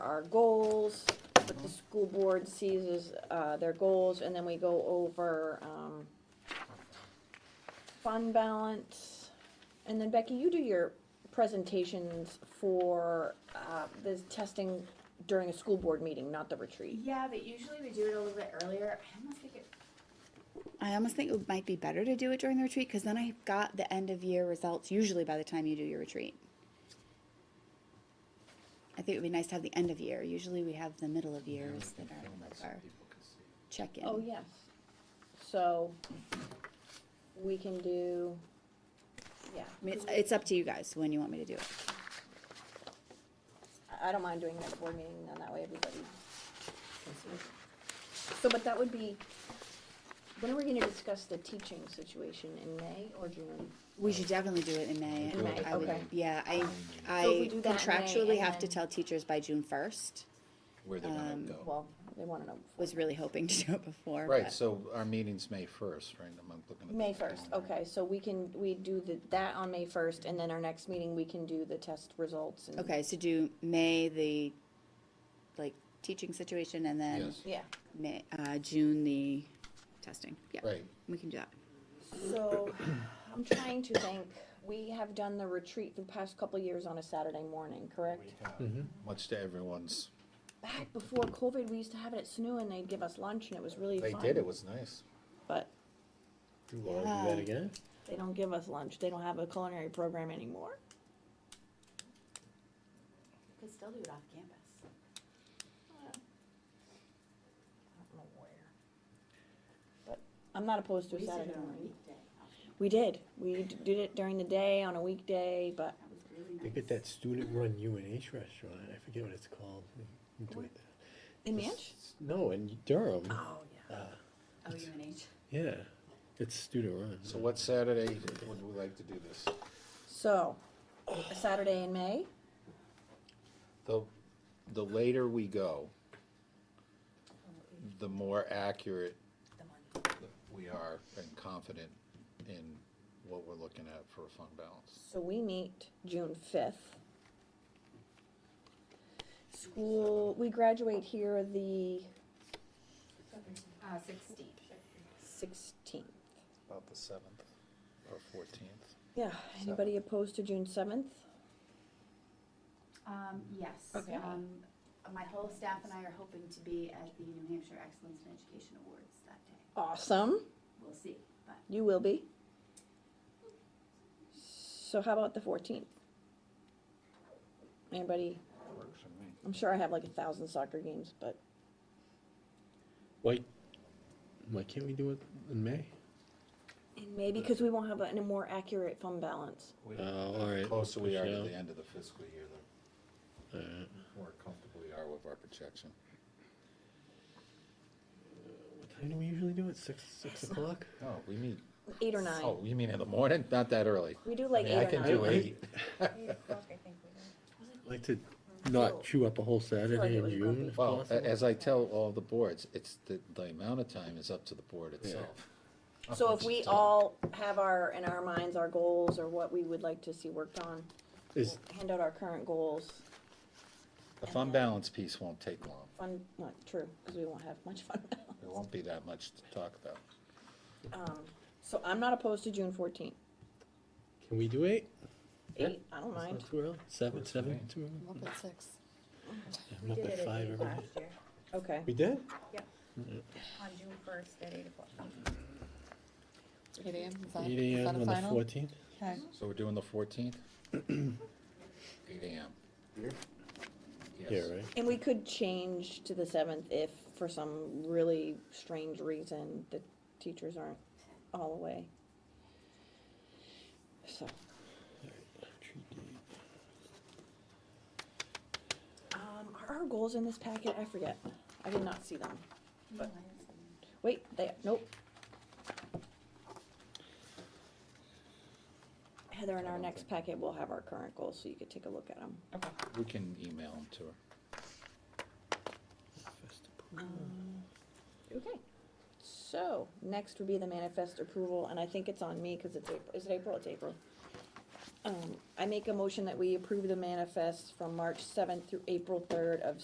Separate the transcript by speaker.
Speaker 1: our goals, what the school board sees as, uh, their goals, and then we go over, um, fund balance. And then Becky, you do your presentations for, uh, the testing during a school board meeting, not the retreat.
Speaker 2: Yeah, but usually we do it a little bit earlier. I almost think it.
Speaker 3: I almost think it might be better to do it during the retreat because then I've got the end of year results usually by the time you do your retreat. I think it would be nice to have the end of year. Usually we have the middle of years that are like our check in.
Speaker 1: Oh, yes. So, we can do, yeah.
Speaker 3: I mean, it's, it's up to you guys when you want me to do it.
Speaker 1: I- I don't mind doing that board meeting, and that way everybody. can see. So, but that would be, when are we gonna discuss the teaching situation, in May or June?
Speaker 3: We should definitely do it in May.
Speaker 1: In May,
Speaker 3: I would-
Speaker 1: okay.
Speaker 3: Yeah, I,
Speaker 1: So if
Speaker 3: I
Speaker 1: we do that in May
Speaker 3: contractually
Speaker 1: and
Speaker 3: have to
Speaker 1: then-
Speaker 3: tell teachers by June first.
Speaker 4: Where they're gonna
Speaker 3: Um,
Speaker 4: go.
Speaker 1: Well, they wanna know. before.
Speaker 3: Was really hoping to do it before.
Speaker 4: Right,
Speaker 3: but-
Speaker 4: so our meeting's May first, right? I'm I'm looking at.
Speaker 1: May
Speaker 4: the
Speaker 1: first,
Speaker 4: calendar.
Speaker 1: okay, so we can, we do the, that on May first, and then our next meeting, we can do the test results and.
Speaker 3: Okay, so do May, the, like, teaching situation, and then
Speaker 4: Yes,
Speaker 1: Yeah,
Speaker 3: May, uh, June, the testing. Yeah,
Speaker 4: right.
Speaker 3: we can do that.
Speaker 1: so, I'm trying to think, we have done the retreat the past couple of years on a Saturday morning, correct?
Speaker 4: Much to everyone's,
Speaker 1: Back before COVID, we used to have it at SNU, and they'd give us lunch, and it was really
Speaker 4: they
Speaker 1: fun.
Speaker 4: did, it was nice.
Speaker 1: But
Speaker 5: Do Laura do that
Speaker 3: Yeah.
Speaker 5: again?
Speaker 1: They don't give us lunch. They don't have a culinary program anymore.
Speaker 2: We could still do it off campus.
Speaker 1: I don't know where. But I'm not opposed to a
Speaker 2: We used to do it
Speaker 1: Saturday
Speaker 2: on a
Speaker 1: morning.
Speaker 2: weekday. off
Speaker 1: We did. We d- did it during the day on a weekday, but
Speaker 2: campus. That was really nice.
Speaker 5: They get that student-run UNH restaurant, I forget what it's called. You do it there.
Speaker 1: in
Speaker 5: It's-
Speaker 1: Manch?
Speaker 5: it's- No, in Durham,
Speaker 1: Oh, yeah.
Speaker 2: Oh, UNH.
Speaker 5: yeah, it's student-run.
Speaker 4: So what Saturday would we like to do this?
Speaker 1: So, a Saturday in May?
Speaker 4: The, the later we go, the more accurate we are and confident in what we're looking at for a fund balance.
Speaker 1: So we meet June fifth. School, we graduate here the
Speaker 2: Uh, sixteen.
Speaker 1: sixteenth.
Speaker 4: About the seventh or fourteenth.
Speaker 1: Yeah, anybody opposed to June seventh?
Speaker 2: Um, yes.
Speaker 1: Okay.
Speaker 2: Um, my whole staff and I are hoping to be at the New Hampshire Excellence in Education Awards that day.
Speaker 1: Awesome.
Speaker 2: We'll see, but
Speaker 1: You will be. So how about the fourteenth? Anybody,
Speaker 4: Works for me.
Speaker 1: I'm sure I have like a thousand soccer games, but
Speaker 5: Why, why can't we do it in May?
Speaker 1: maybe because we won't have a, a more accurate fund balance.
Speaker 4: We-
Speaker 5: Oh, all right.
Speaker 4: The Closer we are
Speaker 5: push it
Speaker 4: to
Speaker 5: out.
Speaker 4: the end of the fiscal year, the
Speaker 5: All right.
Speaker 4: more comfortable we are with our projection.
Speaker 5: What time do we usually do it, six, six o'clock?
Speaker 4: Oh, we meet.
Speaker 1: Eight or
Speaker 4: Oh,
Speaker 1: nine.
Speaker 4: you mean in the morning? Not that early.
Speaker 1: We do like
Speaker 4: I mean, I
Speaker 1: eight or
Speaker 4: can
Speaker 1: nine.
Speaker 4: do
Speaker 5: it.
Speaker 4: eight.
Speaker 5: I Like to not chew up a whole Saturday
Speaker 1: it
Speaker 5: in
Speaker 1: was
Speaker 5: June if
Speaker 4: Well, a-
Speaker 5: possible.
Speaker 4: as I tell all the boards, it's the, the amount of time is up to the board itself.
Speaker 1: So if we all have our, in our minds, our goals or what we would like to see worked on,
Speaker 5: Is,
Speaker 1: hand out our current goals,
Speaker 4: The fund balance piece won't take long.
Speaker 1: fun, not true, because we won't have much fun.
Speaker 4: There won't be that much to talk about.
Speaker 1: Um, So I'm not opposed to June fourteenth.
Speaker 5: can we do eight?
Speaker 1: Eight, I don't
Speaker 5: It's
Speaker 1: mind.
Speaker 5: not too early, seven,
Speaker 4: Works for
Speaker 5: seven,
Speaker 4: me.
Speaker 5: too early?
Speaker 3: Up at six.
Speaker 5: I'm up at five every day.
Speaker 6: year,
Speaker 1: Okay.
Speaker 5: We did?
Speaker 6: on June first at eight o'clock.
Speaker 3: Eight AM, is
Speaker 5: Eight AM on the fourteenth?
Speaker 4: So we're doing the fourteenth? Eight AM.
Speaker 5: Yeah,
Speaker 4: Yes.
Speaker 5: right?
Speaker 1: And we could change to the seventh if, for some really strange reason, the teachers aren't all away. So,
Speaker 5: Retreat date.
Speaker 1: um, are our goals in this packet? I forget. I did not see them. But-
Speaker 2: No, I didn't see them.
Speaker 1: Wait, they, nope. Heather, in our next packet, we'll have our current goals, so you could take a look at them.
Speaker 4: We can email them to her.
Speaker 5: First approval.
Speaker 1: Okay. So, next would be the manifest approval, and I think it's on me, cause it's April, is it April? It's April. Um, I make a motion that we approve the manifest from March seventh through April third of